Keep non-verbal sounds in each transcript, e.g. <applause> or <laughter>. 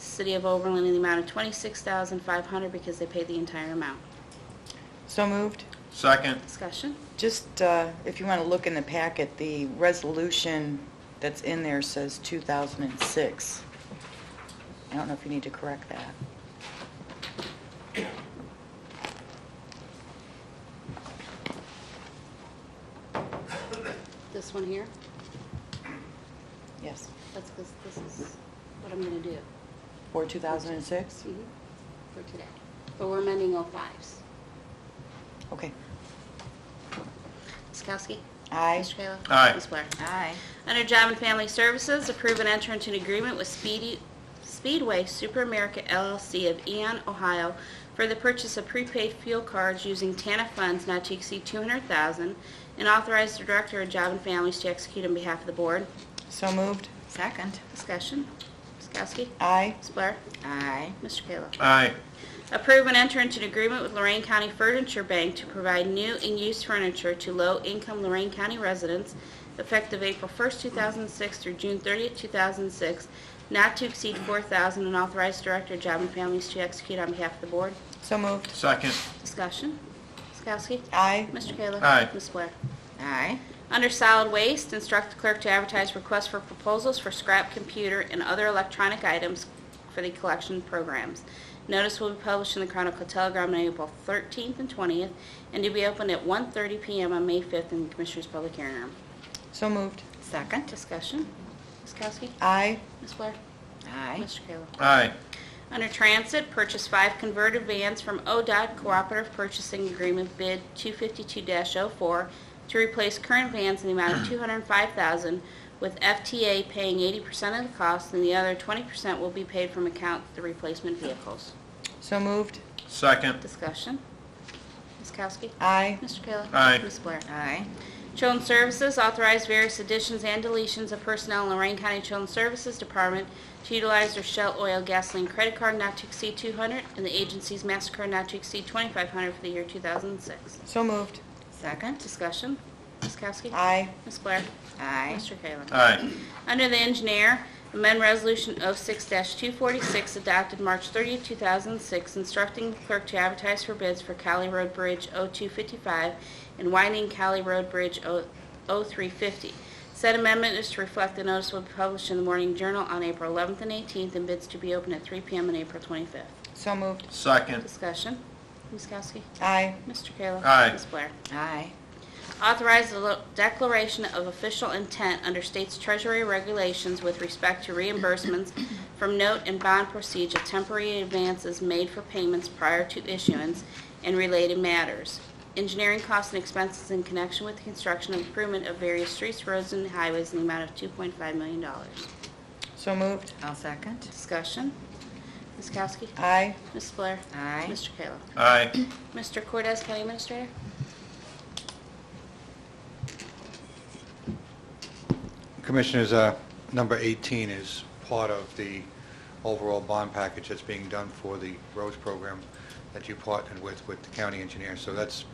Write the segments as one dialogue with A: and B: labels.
A: the City of Oberlin in the amount of $26,500 because they paid the entire amount.
B: So moved.
C: Second,
A: Discussion?
B: Just, uh, if you want to look in the packet, the resolution that's in there says 2006. I don't know if you need to correct that.
A: This one here?
B: Yes.
A: That's because this is what I'm going to do
B: For 2006?
A: mhm, for today. But we're amending 05s.
B: Okay.
A: Ms. Kowski?
B: Aye.
A: Mr. Kayla?
C: Aye.
A: Ms. Blair?
D: Aye.
A: Under Job and Family Services, approve and enter into an agreement with Speedy- Speedway Super America LLC of Eon, Ohio for the purchase of prepaid fuel cards using TANA funds not to exceed 200000 and authorize the Director of Job and Families to execute on behalf of the Board.
B: So moved.
D: Second.
A: Discussion. Ms. Kowski?
B: Aye.
A: Ms. Blair?
D: Aye.
A: Mr. Kayla?
C: aye.
A: Approve and enter into an agreement with Lorraine County Furniture Bank to provide new and used furniture to low-income Lorraine County residents effective April 1st, 2006 through June 30th, 2006, not to exceed 4000 and authorize Director of Job and Families to execute on behalf of the Board.
B: So moved.
C: Second,
A: Discussion. Ms. Kowski?
B: Aye.
A: Mr. Kayla?
C: Aye.
A: Ms. Blair?
D: Aye.
A: Under solid waste, instruct the clerk to advertise requests for proposals for scrap computer and other electronic items for the collection programs. Notice will be published in the Chronicle Telegram on April 13th and 20th, and to be opened at 1:30 PM on May 5th in the Commissioners' Public Hearing Room.
B: So moved.
D: Second.
A: Discussion. Ms. Kowski?
B: Aye.
A: Ms. Blair?
D: Aye.
A: Mr. Kayla?
C: aye.
A: Under Transit, purchase five converted vans from ODOT Cooperative Purchasing Agreement Bid 252-04 to replace current vans in the amount of 205000 with FTA paying 80% of the cost, and the other 20% will be paid from account the replacement vehicles.
B: So moved.
C: Second,
A: Discussion. Ms. Kowski?
B: Aye.
A: Mr. Kayla?
C: Aye.
A: Ms. Blair?
D: Aye.
A: Children's Services authorized various additions and deletions of personnel in Lorraine County Children's Services Department to utilize their Shell Oil Gasoline Credit Card not to exceed 200 and the agency's MasterCard not to exceed 2500 for the year 2006.
B: So moved.
D: Second.
A: Discussion. Ms. Kowski?
B: Aye.
A: Ms. Blair?
D: Aye.
A: Mr. Kayla?
C: aye.
A: Under the engineer, amend Resolution 06-246 adopted March 30, 2006, instructing the clerk to advertise for bids for Cali Road Bridge 0255 and widening Cali Road Bridge 0- 0350. Said amendment is to reflect the notice will be published in the Morning Journal on April 11th and 18th, and bids to be open at 3 p.m. on April 25th.
B: So moved.
C: Second,
A: Discussion. Ms. Kowski?
B: Aye.
A: Mr. Kayla?
C: Aye.
A: Ms. Blair?
D: Aye.
A: Authorize the lo- declaration of official intent under state's treasury regulations with respect to reimbursements from note and bond procedure, temporary advances made for payments prior to issuance and related matters. Engineering costs and expenses in connection with the construction and improvement of various streets, roads, and highways in the amount of $2.5 million.
B: So moved.
D: I'll second.
A: Discussion. Ms. Kowski?
B: Aye.
A: Ms. Blair?
D: Aye.
A: Mr. Kayla?
C: aye.
A: Mr. Cortez, County Administrator?
E: Commissioners, uh, number 18 is part of the overall bond package that's being done for the roads program that you partnered with, with the county engineer. So that's,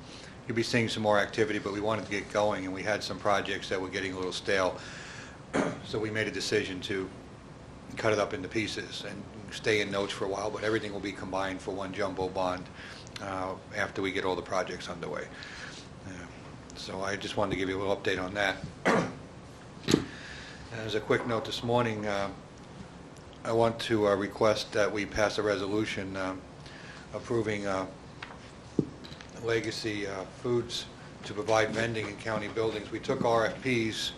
E: you'll be seeing some more activity, but we wanted to get going, and we had some projects that were getting a little stale. <clears throat> So we made a decision to cut it up into pieces and stay in notes for a while, but everything will be combined for one jumbo bond uh, after we get all the projects underway. Yeah. So I just wanted to give you a little update on that. And As a quick note this morning, uh, I want to uh, request that we pass a resolution um, approving uh, Legacy uh, Foods to provide vending in county buildings. We took RFPs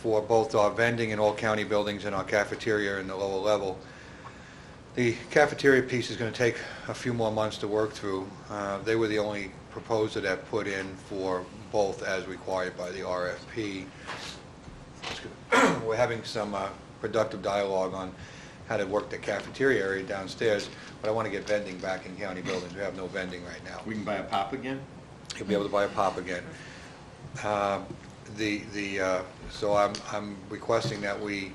E: for both our vending in all county buildings and our cafeteria in the lower level. The cafeteria piece is going to take a few more months to work through. Uh, They were the only proposer that put in for both as required by the RFP. <clears throat> We're having some uh, productive dialogue on how to work the cafeteria area downstairs, but I want to get vending back in county buildings. We have no vending right now
C: We can buy a pop again?
E: you'll be able to buy a pop again. Uh, The, the, uh, so I'm, I'm requesting that we,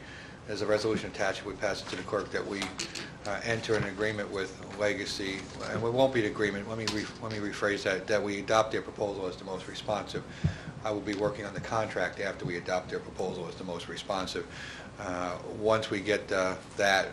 E: as a resolution attached, we pass it to the clerk, that we uh, enter an agreement with Legacy, and it won't be an agreement, let me, re- let me rephrase that, that we adopt their proposal as the most responsive. I will be working on the contract after we adopt their proposal as the most responsive. uh, once we get uh, that,